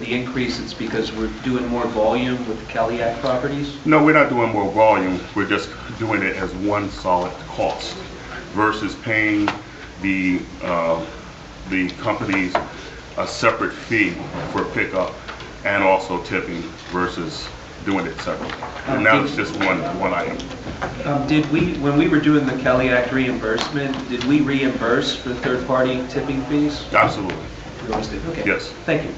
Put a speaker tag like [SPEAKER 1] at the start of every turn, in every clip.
[SPEAKER 1] the increase, it's because we're doing more volume with the Caliac properties?
[SPEAKER 2] No, we're not doing more volume, we're just doing it as one solid cost versus paying the, uh, the companies a separate fee for pickup and also tipping versus doing it separately. And now it's just one, one item.
[SPEAKER 1] Um, Did we, when we were doing the Caliac reimbursement, did we reimburse for third-party tipping fees?
[SPEAKER 2] Absolutely.
[SPEAKER 1] We always did, okay.
[SPEAKER 2] Yes.
[SPEAKER 1] Thank you.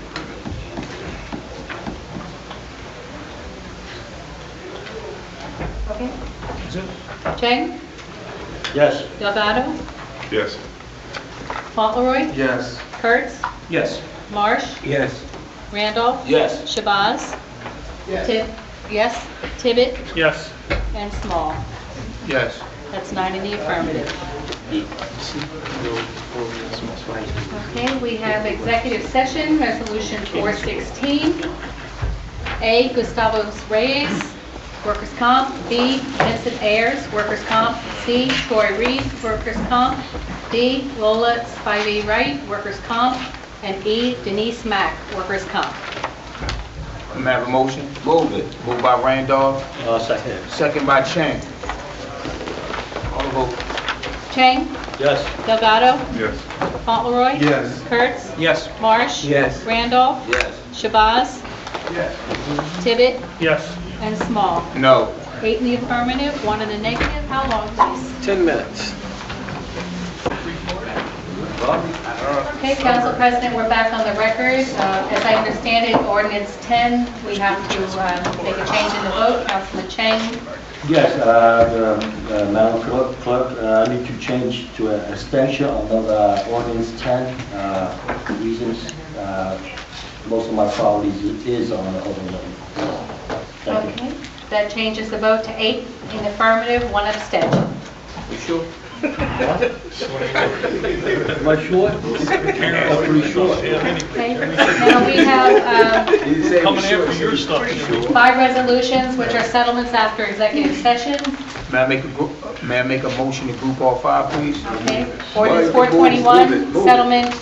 [SPEAKER 3] Okay. Chang?
[SPEAKER 4] Yes.
[SPEAKER 3] Delgado?
[SPEAKER 2] Yes.
[SPEAKER 3] Fauntleroy?
[SPEAKER 4] Yes.
[SPEAKER 3] Kurtz?
[SPEAKER 1] Yes.
[SPEAKER 3] Marsh?
[SPEAKER 4] Yes.
[SPEAKER 3] Randolph?
[SPEAKER 4] Yes.
[SPEAKER 3] Shabazz? Tib- Yes. Tibbet?
[SPEAKER 4] Yes.
[SPEAKER 3] And Small.
[SPEAKER 4] Yes.
[SPEAKER 3] That's nine in the affirmative. Okay, we have executive session, Resolution 416. A, Gustavo Reyes, workers' comp. B, Vincent Ayers, workers' comp. C, Troy Reed, workers' comp. D, Lola Spivey Wright, workers' comp. And E, Denise Mack, workers' comp.
[SPEAKER 4] I'm have a motion. Move it. Moved by Randolph. Uh, second. Second by Chang. All vote.
[SPEAKER 3] Chang? Yes. Delgado?
[SPEAKER 2] Yes.
[SPEAKER 3] Fauntleroy?
[SPEAKER 4] Yes.
[SPEAKER 3] Kurtz?
[SPEAKER 1] Yes.
[SPEAKER 3] Marsh?
[SPEAKER 4] Yes.
[SPEAKER 3] Randolph?
[SPEAKER 4] Yes.
[SPEAKER 3] Shabazz? Tibbet?
[SPEAKER 4] Yes.
[SPEAKER 3] And Small.
[SPEAKER 4] No.
[SPEAKER 3] Eight in the affirmative, one in the negative. How long, please?
[SPEAKER 4] 10 minutes.
[SPEAKER 3] Okay, Council President, we're back on the record. Uh, As I understand it, ordinance 10, we have to uh, make a change in the vote. Councilman Chang,
[SPEAKER 5] Yes, uh, the, uh, Madam Clerk- Clerk, uh, I need to change to an extension of the ordinance 10. uh, Reasons, uh, most of my properties is on the open land. Thank you.
[SPEAKER 3] okay? That changes the vote to eight in the affirmative, one abstention.
[SPEAKER 5] Am I short? I'm pretty short.
[SPEAKER 3] Okay? Now, we have um,
[SPEAKER 6] Coming after your stuff.
[SPEAKER 3] five resolutions, which are settlements after executive session.
[SPEAKER 4] May I make a, group- may I make a motion to group all five, please?
[SPEAKER 3] Okay, ordinance 421, settlement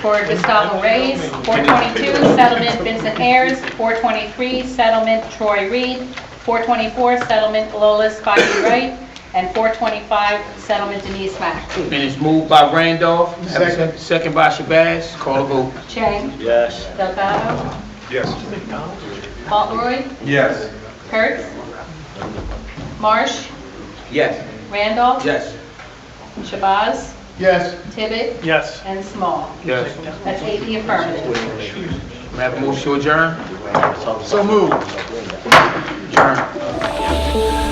[SPEAKER 3] for Gustavo Reyes, 422, settlement Vincent Ayers, 423, settlement Troy Reed, 424, settlement Lola Spivey Wright, and 425, settlement Denise Mack.
[SPEAKER 4] And it's moved by Randolph. Second. Second by Shabazz. Call the vote.
[SPEAKER 3] Chang? Yes. Delgado?
[SPEAKER 2] Yes.
[SPEAKER 3] Fauntleroy?
[SPEAKER 4] Yes.
[SPEAKER 3] Kurtz? Marsh?
[SPEAKER 4] Yes.
[SPEAKER 3] Randolph?
[SPEAKER 4] Yes.
[SPEAKER 3] Shabazz?
[SPEAKER 4] Yes.
[SPEAKER 3] Tibbet?
[SPEAKER 6] Yes.
[SPEAKER 3] And Small.
[SPEAKER 4] Yes.
[SPEAKER 3] That's eight in the affirmative.
[SPEAKER 4] May I have a motion to adjourn? So moved. Adjourn.